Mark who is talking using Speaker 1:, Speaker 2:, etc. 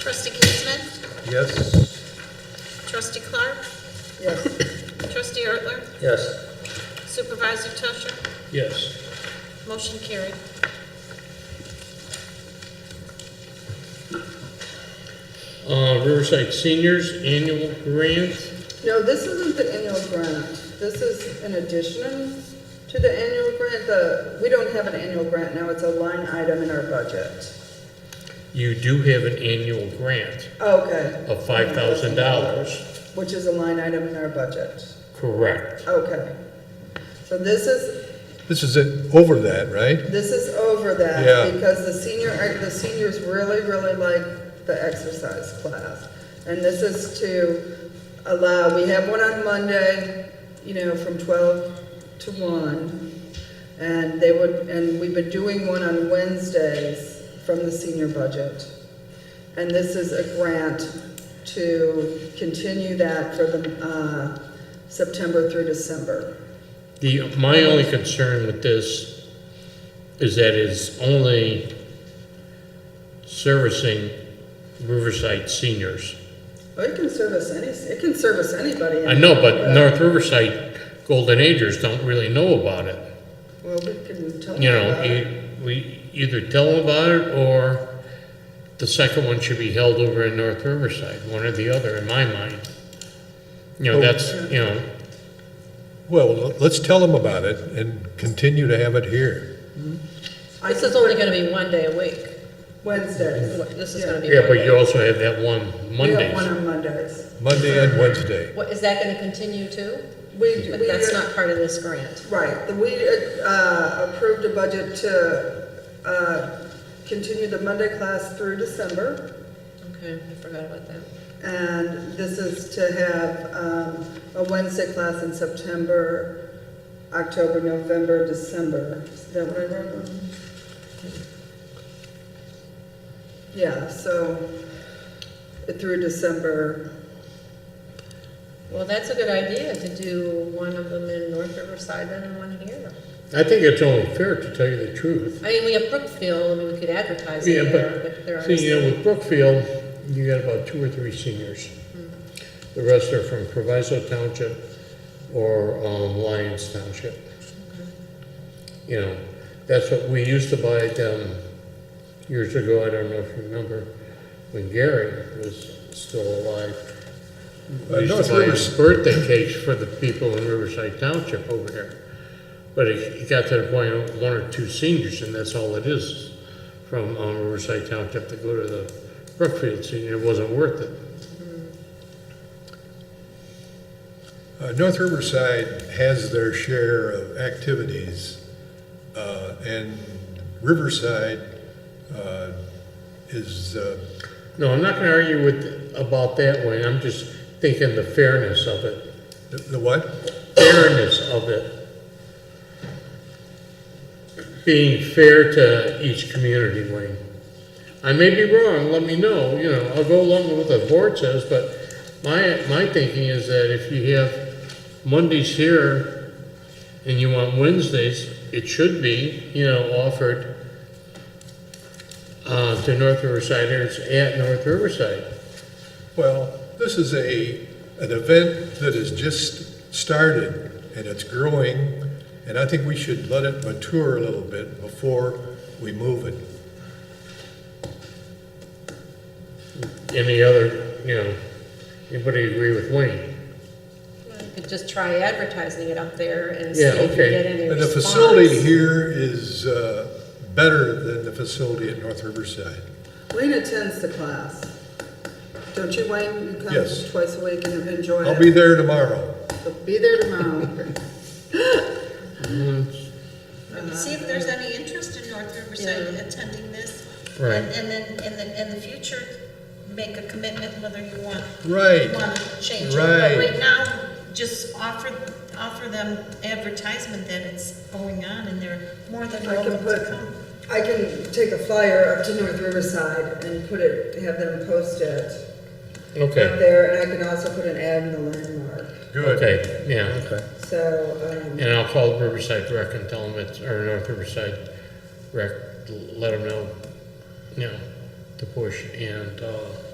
Speaker 1: Trustee Giesman,
Speaker 2: Yes.
Speaker 1: trustee Clark,
Speaker 3: Yes.
Speaker 1: trustee Ertler,
Speaker 2: Yes.
Speaker 1: supervisor Tusher,
Speaker 2: Yes.
Speaker 1: motion carried.
Speaker 2: Uh, Riverside Seniors Annual Grant,
Speaker 3: No, this isn't the annual grant. This is an addition to the annual grant. The, we don't have an annual grant now, it's a line item in our budget.
Speaker 2: you do have an annual grant
Speaker 3: Okay.
Speaker 2: of five thousand dollars,
Speaker 3: Which is a line item in our budget.
Speaker 2: correct?
Speaker 3: Okay. So this is,
Speaker 4: This is it, over that, right?
Speaker 3: this is over
Speaker 4: Yeah.
Speaker 3: that because the senior, the seniors really, really like the exercise class. And this is to allow, we have one on Monday, you know, from twelve to one. And they would, and we've been doing one on Wednesdays from the senior budget. And this is a grant to continue that for the, uh, September through December.
Speaker 2: The, my only concern with this is that it's only servicing Riverside seniors.
Speaker 3: Well, it can service any, it can service anybody.
Speaker 2: I know, but North Riverside Golden Agers don't really know about it.
Speaker 3: Well, we can tell them
Speaker 2: you know,
Speaker 3: about it.
Speaker 2: e- we either tell them about it or the second one should be held over in North Riverside, one or the other, in my mind. You know,
Speaker 4: Oh.
Speaker 2: that's, you know,
Speaker 4: Well, let's tell them about it and continue to have it here.
Speaker 3: I
Speaker 5: This
Speaker 3: can
Speaker 5: is only gonna be one day a week.
Speaker 3: put Wednesdays.
Speaker 5: This is gonna be
Speaker 2: yeah,
Speaker 5: one
Speaker 2: but
Speaker 5: day.
Speaker 2: you also have that one
Speaker 3: We have one
Speaker 2: Mondays.
Speaker 3: on Mondays.
Speaker 4: Monday and Wednesday.
Speaker 5: What, is that gonna continue too?
Speaker 3: We,
Speaker 5: But
Speaker 3: we,
Speaker 5: that's not part of this grant.
Speaker 3: right, the- we, uh, approved a budget to, uh, continue the Monday class through December.
Speaker 5: Okay, I forgot about that.
Speaker 3: And this is to have, um, a Wednesday class in September, October, November, December. Is that what I wrote? down? Yeah, so through December,
Speaker 5: Well, that's a good idea to do one of them in North Riverside and one here.
Speaker 2: I think it's only fair to tell you the truth.
Speaker 5: I mean, we have Brookfield, I mean, we could advertise
Speaker 2: Yeah,
Speaker 5: it there, but there
Speaker 2: but, see, you know,
Speaker 5: are.
Speaker 2: with Brookfield, you got about two or three seniors. The rest are from Proviso Township or um, Lyons Township. You know, that's what we used to buy them years ago, I don't know if you remember, when Gary was still alive.
Speaker 4: Uh,
Speaker 2: We used
Speaker 4: North
Speaker 2: to buy his
Speaker 4: Rivers-
Speaker 2: birthday cakes for the people in Riverside Township over there. But it it got to the point of one or two seniors, and that's all it is, from um, Riverside Township to go to the Brookfield Senior, it wasn't worth it.
Speaker 4: Uh, North Riverside has their share of activities, uh, and Riverside uh, is, uh,
Speaker 2: No, I'm not gonna argue with, about that one, I'm just thinking the fairness of it,
Speaker 4: the- the what?
Speaker 2: fairness of it. Being fair to each community, Wayne. I may be wrong, let me know, you know, I'll go along with what the board says, but my, my thinking is that if you have Mondays here and you want Wednesdays, it should be, you know, offered uh, to North Riversiders at North Riverside.
Speaker 4: Well, this is a, an event that has just started and it's growing, and I think we should let it mature a little bit before we move it.
Speaker 2: any other, you know, anybody agree with Wayne?
Speaker 5: You could just try advertising it up there and see
Speaker 2: Yeah,
Speaker 5: if you
Speaker 2: okay.
Speaker 5: get any
Speaker 4: And the
Speaker 5: response.
Speaker 4: facility here is uh, better than the facility at North Riverside.
Speaker 3: Wayne attends the class. Don't you, Wayne? You come
Speaker 4: Yes.
Speaker 3: twice a week and enjoy
Speaker 4: I'll
Speaker 3: it.
Speaker 4: be there tomorrow.
Speaker 3: So be there tomorrow.
Speaker 1: See if there's any interest in North Riverside
Speaker 5: Yeah.
Speaker 1: attending this.
Speaker 2: Right.
Speaker 1: And and then, in the, in the future, make a commitment whether you want,
Speaker 4: Right.
Speaker 1: want to change. it. But
Speaker 4: Right.
Speaker 1: right now, just offer, offer them advertisement that it's going on and they're more than
Speaker 3: I can
Speaker 1: welcome
Speaker 3: put,
Speaker 1: to come.
Speaker 3: I can take a flyer up to North Riverside and put it, have them post it up
Speaker 2: Okay,
Speaker 3: there, and I can also put an ad in the landmark.
Speaker 4: Good.
Speaker 2: okay, yeah, okay.
Speaker 3: So, um,
Speaker 2: And I'll call Riverside Rec and tell them it's, or North Riverside Rec, let them know, you know, to push and, uh,